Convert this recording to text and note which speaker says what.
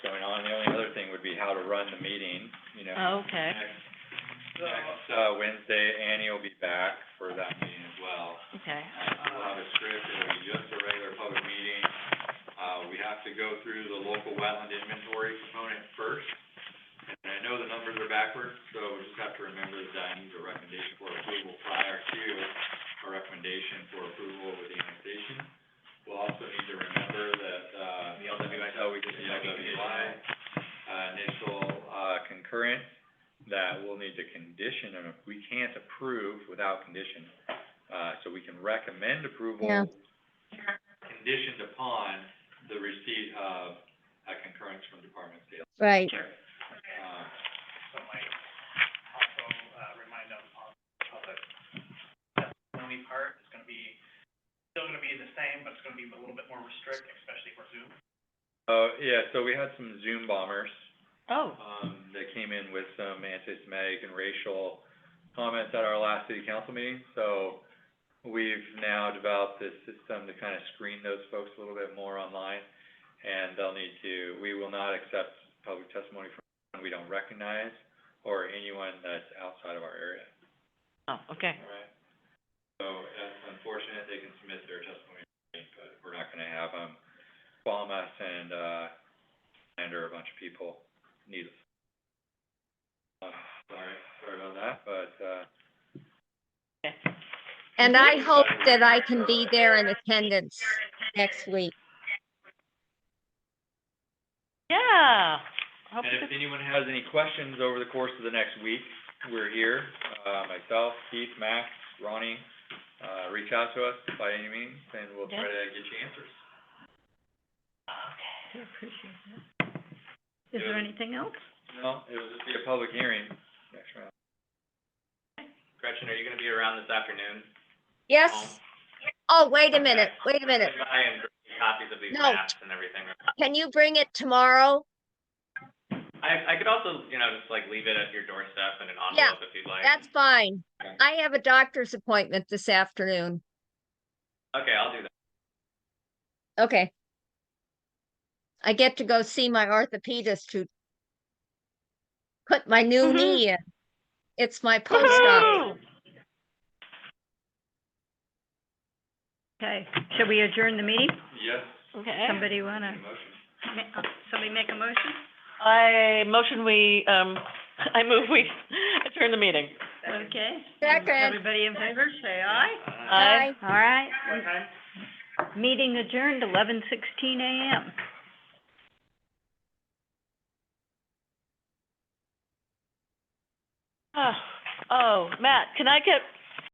Speaker 1: and the only other thing would be how to run the meeting, you know.
Speaker 2: Oh, okay.
Speaker 1: Next, next, uh, Wednesday, Annie will be back for that meeting as well.
Speaker 2: Okay.
Speaker 1: Uh, we'll have a script, it'll be just a regular public meeting. Uh, we have to go through the local wetland inventory component first. And I know the numbers are backwards, so we just have to remember that I need a recommendation for approval prior to a recommendation for approval with the annexation. We'll also need to remember that, uh, the LWI, we just, the LWI, uh, initial, uh, concurrent, that we'll need to condition, and we can't approve without condition. Uh, so we can recommend approval.
Speaker 3: Yeah.
Speaker 1: Conditioned upon the receipt of a concurrence from Department of State.
Speaker 3: Right,
Speaker 1: Uh,
Speaker 4: also, uh, remind them of, of the testimony part, it's gonna be, still gonna be the same, but it's gonna be a little bit more restrict, especially for Zoom.
Speaker 1: Oh, yeah, so we had some Zoom bombers,
Speaker 2: Oh,
Speaker 1: um, that came in with some anti-Semitic and racial comments at our last city council meeting. So we've now developed this system to kind of screen those folks a little bit more online. And they'll need to, we will not accept public testimony from anyone we don't recognize or anyone that's outside of our area.
Speaker 2: oh, okay.
Speaker 1: Alright. So that's unfortunate, they can submit their testimony, but we're not gonna have them bomb us and, uh, slander a bunch of people, needless. Uh, sorry, sorry about that, but, uh,
Speaker 3: and I hope that I can be there in attendance next week.
Speaker 2: Yeah. I hope
Speaker 1: and
Speaker 2: you
Speaker 1: if anyone has any questions over the course of the next week, we're here. Uh, myself, Keith, Max, Ronnie, uh, reach out to us by any means, and we'll try to get you answers.
Speaker 2: Okay, I appreciate that. Is there
Speaker 1: Yeah.
Speaker 2: anything else?
Speaker 1: No, it will just be a public hearing next round. Gretchen, are you gonna be around this afternoon?
Speaker 3: Yes? Oh, wait a minute, wait a minute.
Speaker 1: copies of these
Speaker 3: No.
Speaker 1: maps and everything.
Speaker 3: Can you bring it tomorrow?
Speaker 1: I, I could also, you know, just like leave it at your doorstep in an
Speaker 3: Yeah,
Speaker 1: envelope if you'd like.
Speaker 3: That's fine.
Speaker 1: Okay.
Speaker 3: I have a doctor's appointment this afternoon.
Speaker 1: Okay, I'll do that.
Speaker 3: Okay. I get to go see my orthopedist to put my new
Speaker 2: Mhm.
Speaker 3: knee in. It's my post-op.
Speaker 2: Woo-hoo! Okay, should we adjourn the meeting?
Speaker 1: Yes.
Speaker 2: Okay.
Speaker 5: Somebody wanna,
Speaker 1: Motion.
Speaker 5: ma- uh, somebody make a motion?
Speaker 2: I motion we, um, I move we adjourn the meeting.
Speaker 5: Okay.
Speaker 3: Second.
Speaker 5: Everybody in favor, say aye.
Speaker 3: Bye.
Speaker 5: All right,
Speaker 4: What time?
Speaker 5: meeting adjourned, eleven sixteen AM.
Speaker 2: Oh, oh, Matt, can I get